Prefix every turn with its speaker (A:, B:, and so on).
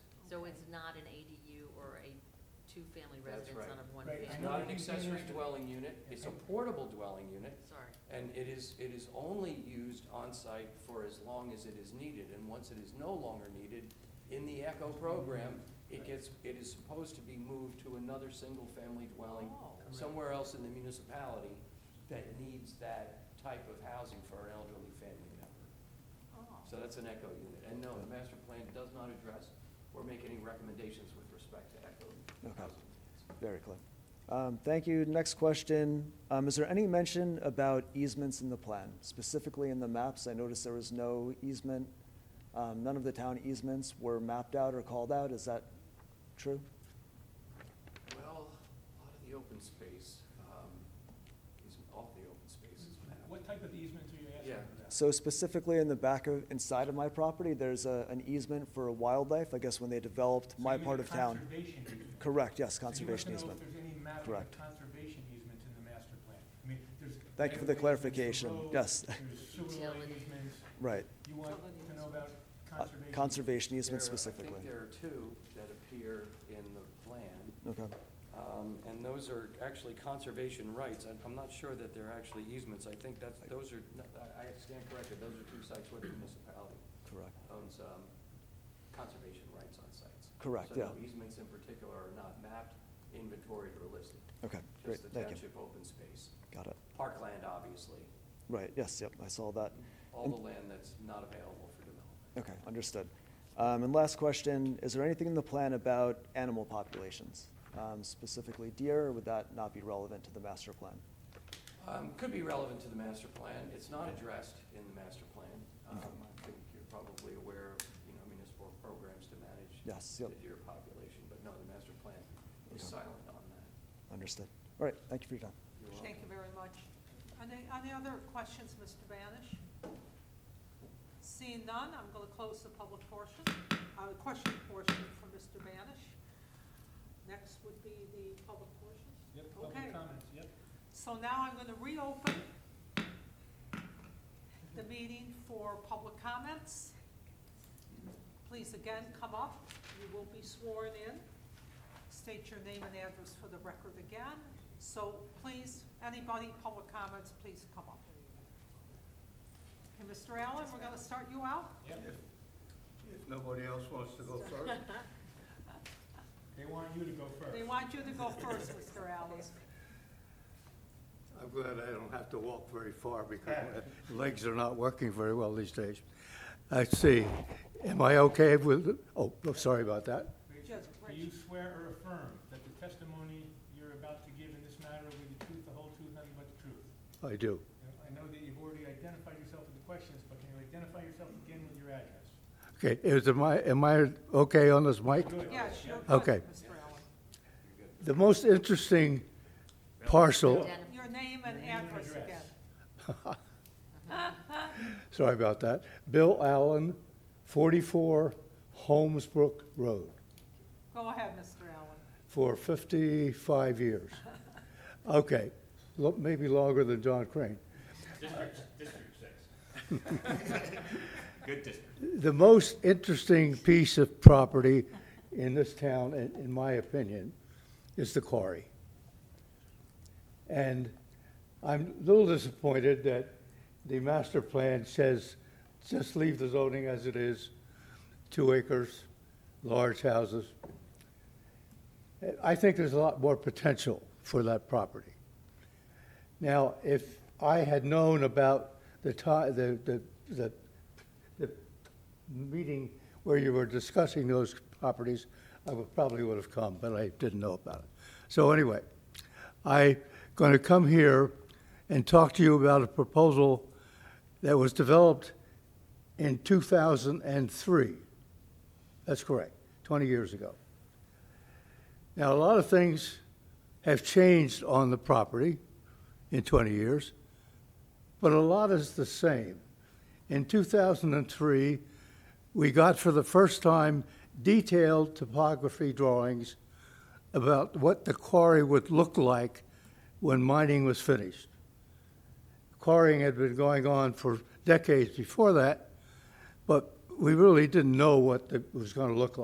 A: not an ADU or a two-family
B: That's
A: residence
B: right.
A: on a
C: Right,
A: one-family.
C: I
B: It's
C: know
B: not
C: you
B: an
C: can
B: accessory
C: use it.
B: dwelling unit, it's a
C: Okay.
B: portable dwelling unit,
A: Sorry,
B: and it is, it is only used on-site for as long as it is needed, and once it is no longer needed, in the ECHO program, it
C: Right.
B: gets, it is supposed to be moved to another single-family dwelling
D: Oh,
C: Correct.
B: somewhere else in the municipality that needs that type of housing for an elderly family member. So that's an ECHO unit, and no, the master plan does not address or make any recommendations with respect to ECHO
E: Okay.
B: housing.
E: Very clear. Um, Thank you. Next question. Um, Is there any mention about easements in the plan, specifically in the maps? I noticed there was no easement. um, None of the town easements were mapped out or called out. Is that true?
B: Well, a lot of the open space, um, is, all the open space is mapped.
C: Mm-hmm. What type of easements are you asking
B: Yeah.
C: about?
E: So specifically in the back of, inside of my property, there's a- an easement for wildlife, I guess when they developed
C: So
E: my
C: you mean
E: part
C: a
E: of town.
C: Conservation easement.
E: Correct, yes,
C: So you want to
E: conservation
C: know
E: easement.
C: if there's any map of
E: Correct.
C: conservation easements in the master plan? I mean, there's.
E: Thank you for the
C: right-of-ways, there's
E: clarification.
C: roads,
E: Yes.
C: There's sewer line
A: Utility.
C: easements.
E: Right.
C: You want to know about
E: Uh,
C: conservation?
E: Conservation easement
B: There- I
E: specifically.
B: think there are two that appear in the plan,
E: Okay,
B: um, and those are actually conservation rights. I- I'm not sure that they're actually easements. I think that's, those are, no, I, I stand corrected, those are two sites where the municipality
E: correct.
B: owns, um, conservation rights on sites.
E: Correct,
B: So no
E: yeah.
B: easements in particular are not mapped, inventoried, or listed.
E: Okay, great,
B: Just the
E: thank you.
B: township open space.
E: Got it.
B: Parkland, obviously,
E: Right, yes, yep, I saw that.
B: all
E: And-
B: the land that's not available for development.
E: Okay, understood. Um, And last question, is there anything in the plan about animal populations? Um, Specifically deer, or would that not be relevant to the master plan?
B: Um, Could be relevant to the master plan. It's not addressed in the master plan. Um,
E: Okay.
B: I think you're probably aware of, you know, municipal programs to manage
E: Yes,
B: the
E: yep.
B: deer population, but no, the master plan is
E: Okay.
B: silent on that.
E: Understood. All right, thank you for your time.
B: You're
D: Thank you
B: welcome.
D: very much. Any, any other questions, Mr. Banish? Seeing none, I'm gonna close the public portion, uh, the question portion for Mr. Banish. Next would be the public portion.
C: Yep,
D: Okay.
C: public comments, yep.
D: So now I'm gonna reopen the meeting for public comments. Please again, come up, you will be sworn in. State your name and address for the record again. So please, anybody, public comments, please come up. Okay, Mr. Allen, we're gonna start you out.
C: Yep.
F: If nobody else wants to go first.
C: They want you to go first.
D: They want you to go first, Mr. Allen.
F: I'm glad I don't have to walk very far because my legs are not working very well these days. Let's see, am I okay with, oh, oh, sorry about that.
D: Judge
C: Do you
D: Rich,
C: swear or affirm that the testimony you're about to give in this matter will be the truth, the whole truth, nothing but the truth?
F: I do.
C: Now, I know that you've already identified yourself with the questions, but can you identify yourself again with your address?
F: Okay, is, am I, am I okay on this mic?
C: Good.
D: yes, you're
C: Yep.
D: good,
F: Okay.
D: Mr. Allen.
F: The most interesting parcel,
A: Identif-
D: Your name
C: Your
D: and
C: name and
D: address
C: address.
D: again.
F: sorry about that, Bill Allen, 44 Holmesbrook Road.
D: Go ahead, Mr. Allen.
F: for 55 years. Okay, lo- maybe longer than John Crane. District, district six. Good district. The most interesting piece of property in this town, in, in my opinion, is the quarry. And I'm a little disappointed that the master plan says, just leave the zoning as it is, two acres, large houses. I think there's a lot more potential for that property. Now, if I had known about the ti, the, the, the, the meeting where you were discussing those properties, I would, probably would have come, but I didn't know about it. So anyway, I gonna come here and talk to you about a proposal that was developed in two thousand and three. That's correct, twenty years ago. Now, a lot of things have changed on the property in 20 years, but a lot is the same. In 2003, we got for the first time detailed topography drawings about what the quarry would look like when mining was finished. Quarrying had been going on for decades before that, but we really didn't know what it was going to look like.